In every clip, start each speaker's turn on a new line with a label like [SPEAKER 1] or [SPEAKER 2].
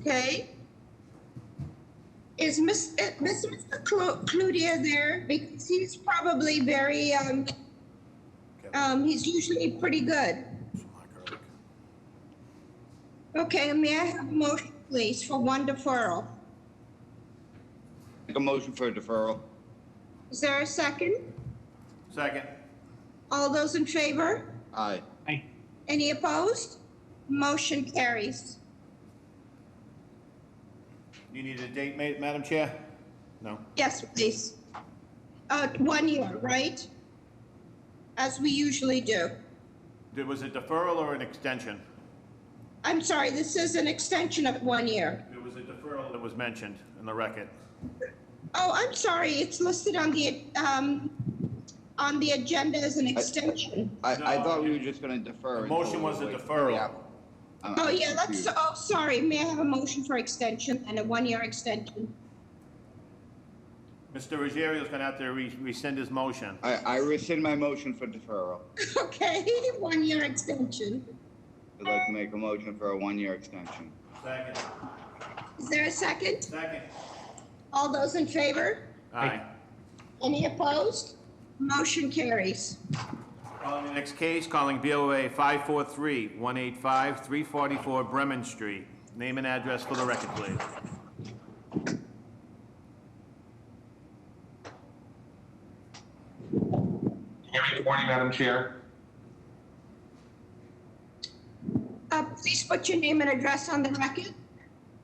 [SPEAKER 1] Okay. Is Miss, uh, Miss- Mr. Clu- Cludier there? Because he's probably very, um, um, he's usually pretty good. Okay, may I have a motion, please, for one deferral?
[SPEAKER 2] Make a motion for a deferral.
[SPEAKER 1] Is there a second?
[SPEAKER 3] Second.
[SPEAKER 1] All those in favor?
[SPEAKER 2] Aye.
[SPEAKER 4] Aye.
[SPEAKER 1] Any opposed? Motion carries.
[SPEAKER 3] You need a date, ma- Madam Chair? No?
[SPEAKER 1] Yes, please. Uh, one year, right? As we usually do.
[SPEAKER 3] There was a deferral or an extension?
[SPEAKER 1] I'm sorry, this is an extension of one year.
[SPEAKER 3] There was a deferral. That was mentioned in the record.
[SPEAKER 1] Oh, I'm sorry, it's listed on the, um, on the agenda as an extension.
[SPEAKER 2] I, I
[SPEAKER 3] No,
[SPEAKER 2] thought we
[SPEAKER 3] you-
[SPEAKER 2] were just gonna defer.
[SPEAKER 3] The motion
[SPEAKER 2] until we
[SPEAKER 3] was a
[SPEAKER 2] wait for the
[SPEAKER 3] deferral.
[SPEAKER 2] applicant. I'm-
[SPEAKER 1] Oh,
[SPEAKER 2] I'm
[SPEAKER 1] yeah, let's,
[SPEAKER 2] confused.
[SPEAKER 1] oh, sorry, may I have a motion for extension and a one-year extension?
[SPEAKER 3] Mr. Ruggiero is going to have to re- rescind his motion.
[SPEAKER 2] I, I rescind my motion for deferral.
[SPEAKER 1] Okay, one-year extension.
[SPEAKER 2] I'd like to make a motion for a one-year extension.
[SPEAKER 3] Second.
[SPEAKER 1] Is there a second?
[SPEAKER 3] Second.
[SPEAKER 1] All those in favor?
[SPEAKER 3] Aye.
[SPEAKER 1] Any opposed? Motion carries.
[SPEAKER 3] Calling the next case, calling BOA 543-185, 344 Bremen Street. Name and address for the record, please.
[SPEAKER 5] Hear me Good morning, Madam Chair.
[SPEAKER 1] Uh, please put your name and address on the record.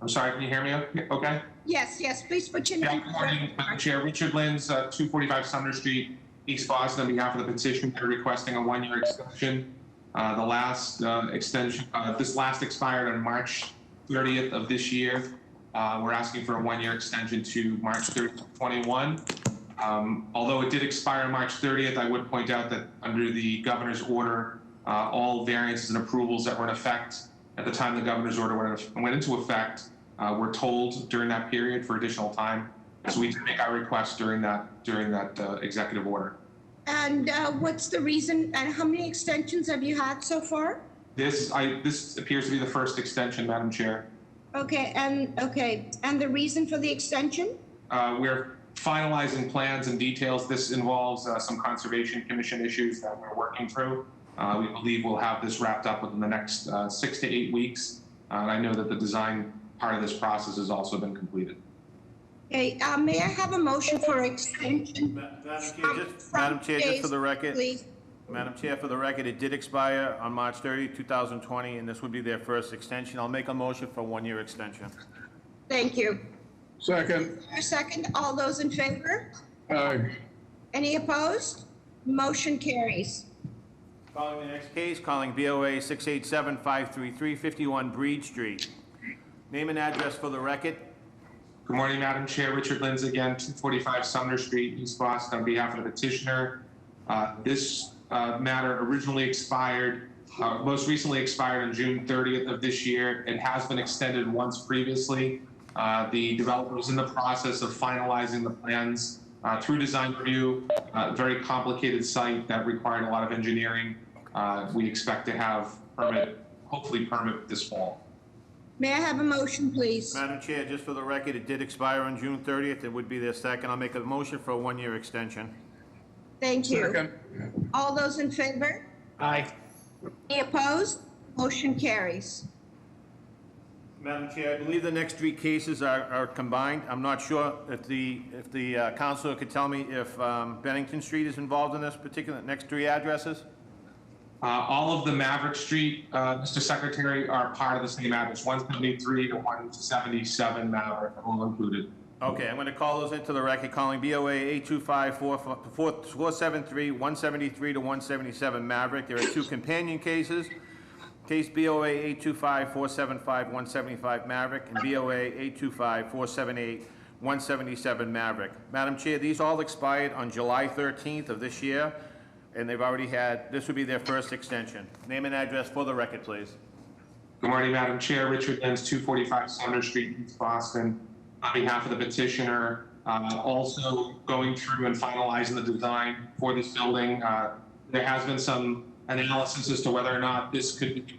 [SPEAKER 5] I'm sorry, can you hear me o- okay?
[SPEAKER 1] Yes, yes, please put your
[SPEAKER 5] Yeah,
[SPEAKER 1] name.
[SPEAKER 5] good morning, Madam Chair. Richard Lins, uh, 245 Sumner Street, East Boston, on behalf of the petition, they're requesting a one-year extension. Uh, The last uh, extension, uh, this last expired on March 30th of this year. Uh, We're asking for a one-year extension to March 30th, of 21. Um, Although it did expire on March 30th, I would point out that under the governor's order, uh, all variances and approvals that were in effect at the time the governor's order went went into effect uh, were told during that period for additional time. So we did make our request during that, during that uh, executive order.
[SPEAKER 1] And uh, what's the reason, and how many extensions have you had so far?
[SPEAKER 5] This, I, this appears to be the first extension, Madam Chair.
[SPEAKER 1] Okay, and, okay, and the reason for the extension?
[SPEAKER 5] Uh, We're finalizing plans and details. This involves uh, some Conservation Commission issues that we're working through. Uh, We believe we'll have this wrapped up within the next uh, six to eight weeks. Uh, And I know that the design part of this process has also been completed.
[SPEAKER 1] Okay, uh, may I have a motion for extension,
[SPEAKER 3] Ma- Madam Chair, just, Madam Chair, just for the record,
[SPEAKER 1] please?
[SPEAKER 3] Madam Chair, for the record, it did expire on March 30, 2020, and this would be their first extension. I'll make a motion for one-year extension.
[SPEAKER 1] Thank you.
[SPEAKER 6] Second,
[SPEAKER 1] A second, all those in favor?
[SPEAKER 6] aye.
[SPEAKER 1] Any opposed? Motion carries.
[SPEAKER 3] Calling the next case, calling BOA 687-533-51 Breed Street. Name and address for the record.
[SPEAKER 5] Good morning, Madam Chair. Richard Lins again, 245 Sumner Street, East Boston, on behalf of the petitioner. Uh, This uh, matter originally expired, uh, most recently expired on June 30th of this year and has been extended once previously. Uh, The developer was in the process of finalizing the plans uh, through design review, uh, a very complicated site that required a lot of engineering. Uh, We expect to have permit, hopefully permit this fall.
[SPEAKER 1] May I have a motion, please?
[SPEAKER 3] Madam Chair, just for the record, it did expire on June 30th. It would be their second. I'll make a motion for a one-year extension.
[SPEAKER 1] Thank you.
[SPEAKER 6] Second,
[SPEAKER 1] All those in favor?
[SPEAKER 4] Aye.
[SPEAKER 1] Any opposed? Motion carries.
[SPEAKER 3] Madam Chair, I believe the next three cases are, are combined. I'm not sure if the, if the uh, counselor could tell me if um, Bennington Street is involved in this particular, next three addresses?
[SPEAKER 5] Uh, all of the Maverick Street, uh, Mr. Secretary, are part of the same address, one seventy-three to one seventy-seven Maverick, all included.
[SPEAKER 3] Okay, I'm going to call those into the record, calling BOA 825-473-173 to 177 Maverick. There are two companion cases, case BOA 825-475-175 Maverick and BOA 825-478-177 Maverick. Madam Chair, these all expired on July 13th of this year, and they've already had, this would be their first extension. Name and address for the record, please.
[SPEAKER 5] Good morning, Madam Chair. Richard Lenz, 245 Sumner Street, East Boston. On behalf of the petitioner, uh, also going through and finalizing the design for this building. Uh, There has been some analysis as to whether or not this could be